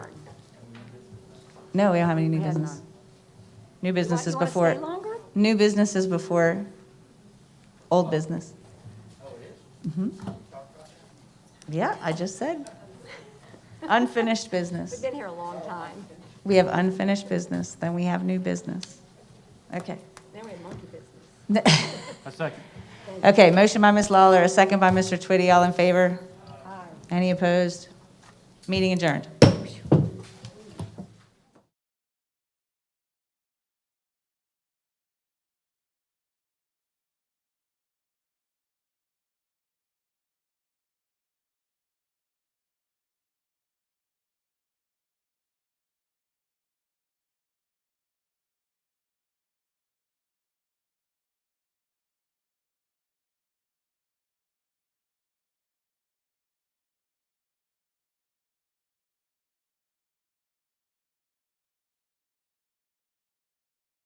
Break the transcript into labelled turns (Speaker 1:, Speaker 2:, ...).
Speaker 1: No, we don't have any new
Speaker 2: We have
Speaker 1: business.
Speaker 2: none.
Speaker 1: New business is
Speaker 2: Do you
Speaker 1: before,
Speaker 2: want to stay longer?
Speaker 1: new business is before old business. Mhm. Yeah, I just said. Unfinished
Speaker 2: We've
Speaker 1: business.
Speaker 2: been here a long time.
Speaker 1: We have unfinished business, then we have new business. Okay.
Speaker 2: Now we have monkey business.
Speaker 3: A second.
Speaker 1: Okay, motion by Ms. Lawler, a second by Mr. Twitty, all in favor? Any opposed? Meeting adjourned.